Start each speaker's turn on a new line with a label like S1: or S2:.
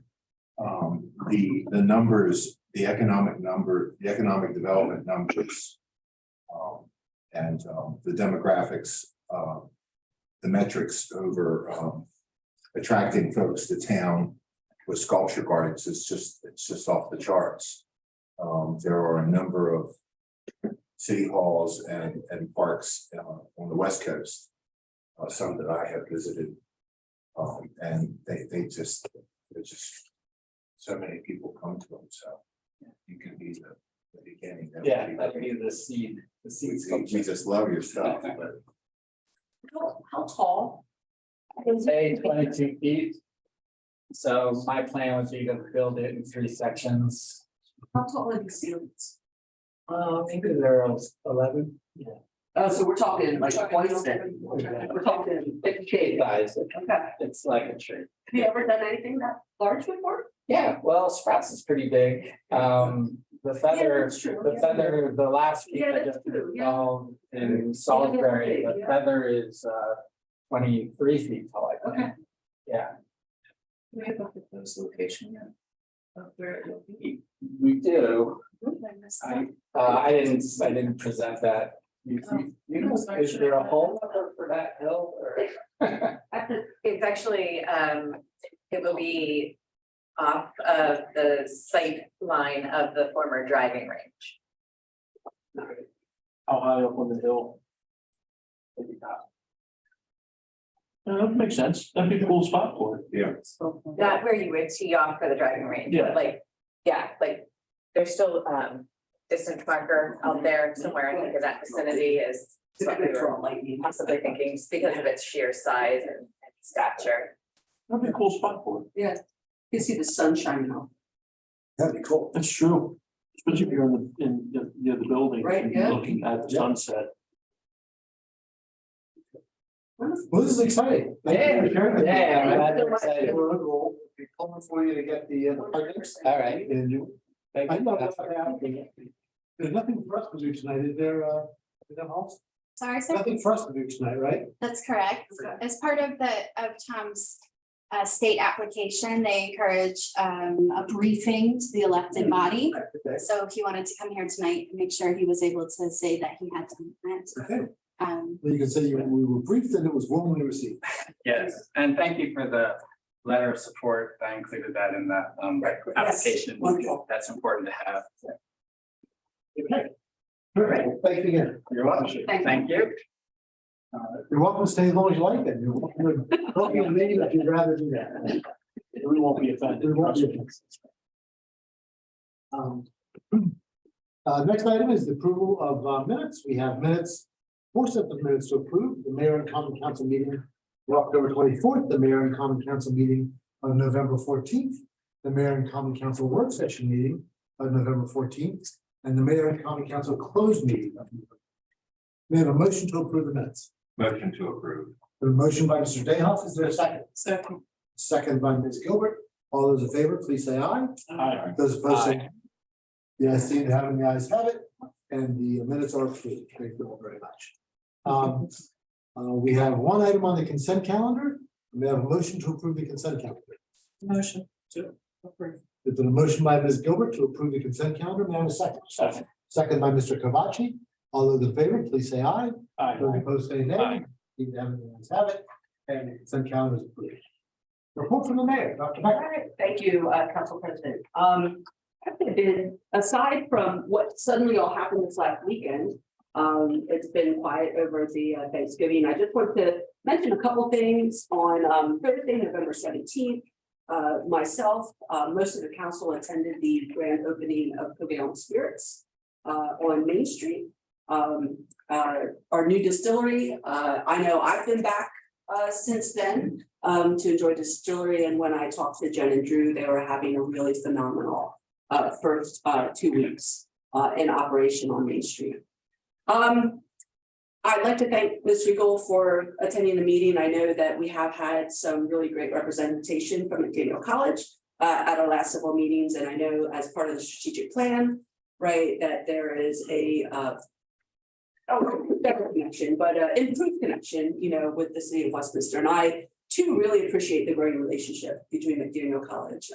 S1: um, the, the numbers, the economic number, the economic development numbers. um, And um, the demographics, uh, the metrics over um, attracting folks to town with sculpture gardens is just, it's just off the charts. Um, There are a number of city halls and, and parks uh, on the west coast, uh, some that I have visited. Um, And they, they just, they're just so many people come to them, so you can be the, the beginning. that would
S2: Yeah,
S1: be-
S2: that would be the seed, the
S1: We,
S2: seed
S1: we- we
S2: sculpture.
S1: just love your stuff, but
S3: How, how tall? is it?
S2: Say twenty-two feet. So my plan would be to build it in three sections.
S3: How tall are these ceilings?
S2: Uh, maybe there are eleven.
S4: Oh, so we're talking like
S3: We're talking-
S4: twice then, we're talking fifty
S2: Big
S4: K,
S2: Guys,
S4: okay, have
S2: it's like a tree.
S4: you ever done anything that large before?
S2: Yeah, well, Sprouts is pretty big. Um, the feather,
S3: that's true,
S2: the
S3: yeah.
S2: feather, the last. peak
S3: Yeah,
S2: I
S3: that's
S2: just
S3: true, yeah.
S2: installed In Salisbury,
S4: big,
S2: the
S4: yeah.
S2: feather is uh twenty-three feet tall, I think.
S4: Okay.
S2: Yeah,
S4: We have a proposed location yet? Of where it will be.
S2: we do.
S4: Mm-hmm. I missed
S2: I, uh, I didn't, I didn't present that. You,
S3: Oh.
S2: you- you, is there a hole number for that hill or?
S5: It's actually, um, it will be off of the sight line of the former driving range.
S2: How high up on the hill?
S6: Yeah, that makes sense. That'd be a cool spot for it.
S5: Not where you would tee off for the driving range,
S6: Yeah.
S5: but like, yeah, like, there's still, um, distance marker out there somewhere, I think in that vicinity is what we were
S4: lightning.
S5: possibly thinking, just because of its sheer size and and stature.
S6: That'd be a cool spot for it.
S4: Yeah, you see the sun shining off,
S1: that'd be cool.
S6: That's true. Especially if you're in the, in the, near the building.
S4: Right,
S6: and
S4: yeah.
S6: Looking at the sunset.
S1: Well, this is exciting. Thank you for sharing with me.
S2: Yeah, I'm glad
S1: All
S2: you're excited.
S1: right, we'll be pulling for you to get the. uh, partners.
S2: All right.
S1: And you-
S2: Thank
S1: I
S2: you.
S1: know
S2: That's-
S1: that. There's nothing for us to do tonight, is there, uh, is there else?
S7: Sorry, sir,
S1: Nothing for us to do tonight, right?
S7: that's correct. As part of the, of Tom's uh, state application, they encourage um, a briefing to the
S1: Mm-hmm.
S7: elected body.
S1: Okay.
S7: So if he wanted to come here tonight, make sure he was able to say that he had done that.
S1: Okay.
S7: Um,
S1: Well, you can say you- we were briefed and it was warmly received.
S2: Yes, and thank you for the letter of support. I included that in the um application.
S4: wonderful.
S2: That's important to have.
S1: Okay. All right, well, thank you again.
S2: You're welcome.
S7: Thank you.
S2: Thank you.
S1: You're welcome to stay as long as you like then. You're welcome to- welcome to leave if you'd rather do that.
S6: We won't be offended.
S1: We won't be
S6: trust me.
S1: Um, Uh, next item is the approval of uh, minutes. We have minutes, four sets of minutes to approve, the mayor and common council meeting on October twenty-fourth, the mayor and common council meeting on November fourteenth, the mayor and common council work session meeting on November fourteenth, and the mayor and common council closed meeting. on November 14th. We have a motion to approve the minutes.
S8: Motion to approve.
S1: A motion by Mr. Dayhoff. Is there a second?
S4: second.
S1: Second by Ms. Gilbert. All those in favor, please say aye.
S6: Aye.
S1: Those opposed, say. The ayes seem to have it, and the ayes have it, and the minutes are approved. Thank you all very much. Um, uh, we have one item on the consent calendar. We have a motion to approve the consent calendar.
S4: Motion to approve.
S1: There's been a motion by Ms. Gilbert to approve the consent calendar. May I have a second?
S6: Second.
S1: Second by Mr. Kavachi. All those in favor, please say aye.
S6: Aye.
S1: Those opposed, say nay.
S6: Aye.
S1: Seem to have it, and the ayes have it, and the consent calendar is approved. Report from the mayor, Dr. Becker.
S4: All right, thank you, uh, Council President. Um, I've been, aside from what suddenly all happened this last weekend, um, it's been quiet over the uh, Thanksgiving. I just want to mention a couple things on, um, Thursday, November seventeenth. Uh, myself, uh, most of the council attended the grand opening of Covalent Spirits, uh, on Main Street. Um, uh, our new distillery, uh, I know I've been back, uh, since then um, to enjoy distillery. And when I talked to Jen and Drew, they were having a really phenomenal uh, first uh, two weeks uh, in operation on Main Street. Um, I'd like to thank Ms. Regal for attending the meeting. I know that we have had some really great representation from McDaniel College uh, at our last several meetings, and I know as part of the strategic plan, right, that there is a uh, oh, better connection, but uh, improved connection, you know, with the city of Westminster. And I too really appreciate the growing relationship between McDaniel College